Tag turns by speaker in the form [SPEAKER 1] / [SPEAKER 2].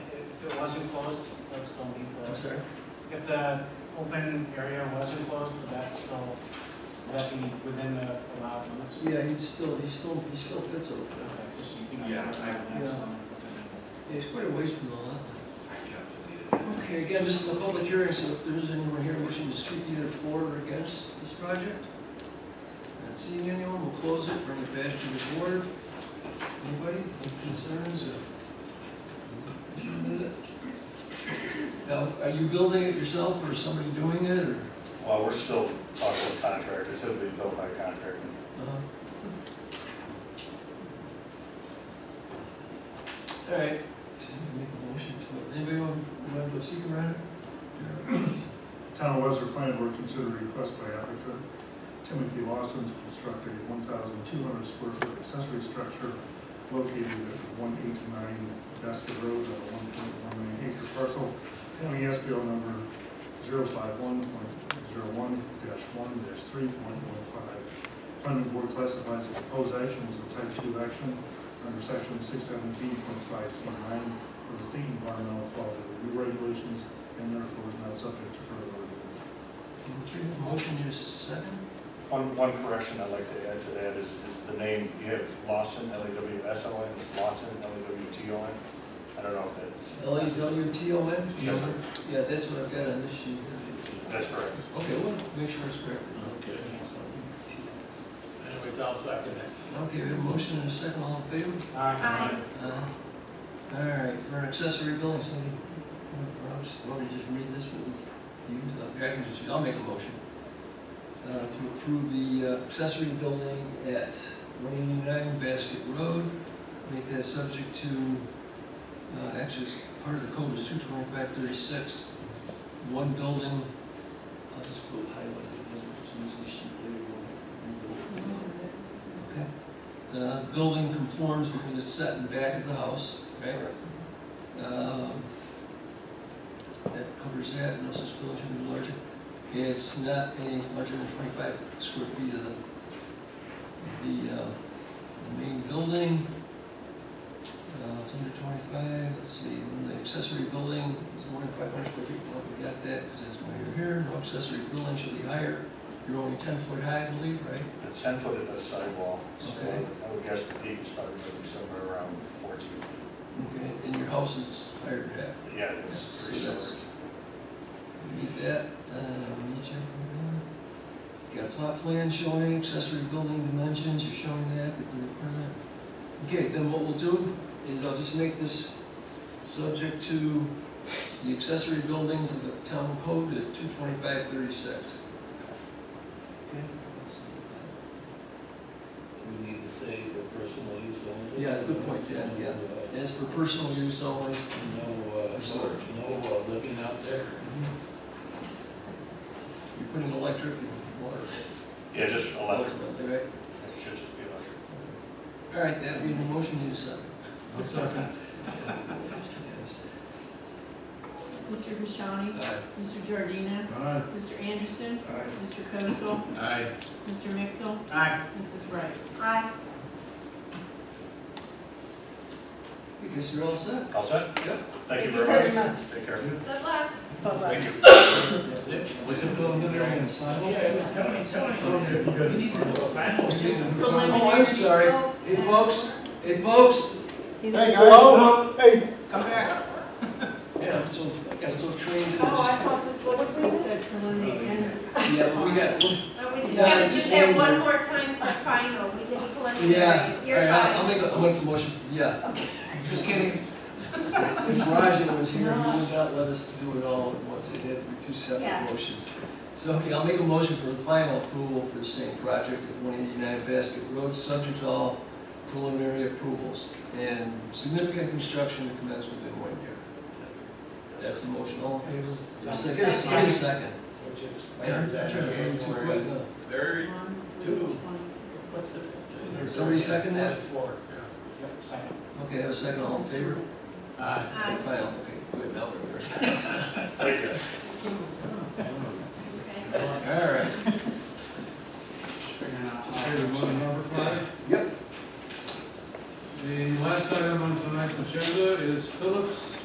[SPEAKER 1] it was enclosed, that would still be
[SPEAKER 2] I'm
[SPEAKER 1] closed.
[SPEAKER 2] sorry?
[SPEAKER 1] If the open area was enclosed, would that still, would that be within the allowed limits?
[SPEAKER 2] Yeah, he's still, he's still, he still fits over there.
[SPEAKER 1] Okay, just so you can-
[SPEAKER 3] Yeah, I-
[SPEAKER 1] That's, um,
[SPEAKER 2] Yeah, he's quite a ways from the lot line.
[SPEAKER 3] I calculated it.
[SPEAKER 2] Okay, again, this is a public hearing, so if there is anyone here wishing to speak either for or against this project, not seeing anyone, we'll close it, bring it back to the board. Anybody, any concerns or issue with it? Now, are you building it yourself or is somebody doing it or?
[SPEAKER 4] Well, we're still talking to contractors, it'll be built by contractor.
[SPEAKER 2] All right. Make a motion to, anybody want, want to go see around?
[SPEAKER 5] Town of Webster Planning Board consider request by applicant Timothy Lawson to construct a one thousand two hundred square foot accessory structure located at one eighty-nine Vesta Road, on a one point one nine acre parcel, county SBL number 51 one three point one five. Planning Board classifies the proposed action as a type two action under section six seventeen point five C nine of the state environmental quality review regulations and therefore is not subject to further review.
[SPEAKER 2] Okay, motion is second.
[SPEAKER 4] One, one correction I'd like to add to that is, is the name, you have Lawson, L A W S O N, it's Lawson, L A W T O N. I don't know if that's.
[SPEAKER 2] L A W T O N?
[SPEAKER 4] Yes, sir.
[SPEAKER 2] Yeah, that's what I've got on this sheet. here.
[SPEAKER 4] That's correct.
[SPEAKER 2] Okay, we'll make sure it's correct.
[SPEAKER 3] Okay. Anyways, I'll second it.
[SPEAKER 2] Okay, we have a motion and a second, all in favor?
[SPEAKER 1] Aye.
[SPEAKER 2] Aye. All right, Uh, for an accessory building, somebody, I'll just, want to just read this one? You, uh, I can just, I'll make a motion. Uh, to approve the uh, accessory building at one eighty-nine Basket Road, make that subject to, uh, actually, it's part of the code is two twenty-five thirty-six. One building, I'll just go highlight it, I'll just use the sheet later. We'll rebuild it. Okay. The building conforms because it's set in back of the house, right? Um, That covers that, no such building should be larger. It's not any larger than twenty-five square feet of the, the, uh, the main building. Uh, it's under twenty-five, let's see, and the accessory building is more than five hundred square feet, well, we got that, because that's why you're here. No accessory building should be higher, you're only ten foot high, I believe, right?
[SPEAKER 4] It's ten foot at the sidewall, so
[SPEAKER 2] Okay.
[SPEAKER 4] I would guess the peak is probably gonna be somewhere around fourteen.
[SPEAKER 2] Okay, and your house is higher than that.
[SPEAKER 4] Yeah, it's three
[SPEAKER 2] So that's-
[SPEAKER 4] stories.
[SPEAKER 2] We Need that, uh, we need you. Got a plot plan showing accessory building dimensions, you're showing that, that the requirement. Okay, then what we'll do is I'll just make this subject to the accessory buildings of the town code at two twenty-five thirty-six. Okay.
[SPEAKER 3] We need to say for personal use only.
[SPEAKER 2] Yeah, good point, Jen, yeah. As for personal use only,
[SPEAKER 3] No, uh,
[SPEAKER 2] For storage.
[SPEAKER 3] no uh, living out there.
[SPEAKER 2] you're putting electric and water.
[SPEAKER 4] Yeah, just electric,
[SPEAKER 2] Right.
[SPEAKER 4] it should just be electric.
[SPEAKER 2] All right, that being the motion, you decide.
[SPEAKER 3] I'll second.
[SPEAKER 6] Mr. Bishani,
[SPEAKER 2] Aye.
[SPEAKER 6] Mr. Giardina,
[SPEAKER 5] Aye.
[SPEAKER 6] Mr. Anderson,
[SPEAKER 5] Aye.
[SPEAKER 6] Mr. Kozel,
[SPEAKER 3] Aye.
[SPEAKER 6] Mr. Mixel,
[SPEAKER 1] Aye.
[SPEAKER 6] Mrs. Wright. Aye.
[SPEAKER 2] I guess you're all set.
[SPEAKER 4] All set?
[SPEAKER 2] Yep.
[SPEAKER 4] Thank you very much. Take care.
[SPEAKER 6] Good luck.
[SPEAKER 4] Thank you.
[SPEAKER 3] What's it going to be? Yeah, Tony, Tony, we need to do a final.
[SPEAKER 6] It's
[SPEAKER 2] Oh, I'm sorry. Hey, folks, hey, folks.
[SPEAKER 1] Hey,
[SPEAKER 5] Hey.
[SPEAKER 1] Come back.
[SPEAKER 2] Yeah, I'm so, I got so trained in
[SPEAKER 6] Oh, I
[SPEAKER 2] this.
[SPEAKER 6] thought this was what it said preliminary.
[SPEAKER 2] Yeah, we got,
[SPEAKER 7] Oh, we just
[SPEAKER 2] Yeah,
[SPEAKER 7] gotta do
[SPEAKER 2] just
[SPEAKER 7] that
[SPEAKER 2] leave
[SPEAKER 7] one
[SPEAKER 2] it.
[SPEAKER 7] more time for final, we did preliminary.
[SPEAKER 2] yeah. All
[SPEAKER 7] You're
[SPEAKER 2] right, I'll- I'll make
[SPEAKER 7] fine.
[SPEAKER 2] a, I'll make a motion, yeah. Just kidding. If Raja was here, he would not let us do it all at once. It had to be two separate
[SPEAKER 7] Yes.
[SPEAKER 2] motions. So, okay, I'll make a motion for the final approval for the same project at one eighty-nine Basket Road, subject to all preliminary approvals and significant construction to commence within one year. That's the motion, all in favor?
[SPEAKER 1] Second.
[SPEAKER 2] Second, second, second.
[SPEAKER 3] Which is-
[SPEAKER 2] Aaron,
[SPEAKER 3] is that January
[SPEAKER 2] January.
[SPEAKER 3] third? Two. What's the?
[SPEAKER 2] Somebody second that?
[SPEAKER 3] Four.
[SPEAKER 1] Yep, second.
[SPEAKER 2] Okay, have a second, all in favor?
[SPEAKER 3] Aye.
[SPEAKER 7] Aye.
[SPEAKER 2] Final, okay, good, now we're.
[SPEAKER 4] Thank you.
[SPEAKER 7] Okay.
[SPEAKER 2] All right.
[SPEAKER 1] Figuring out.
[SPEAKER 8] Okay, we're on to number five.
[SPEAKER 2] Yep.
[SPEAKER 8] The last item on tonight's agenda is Phillips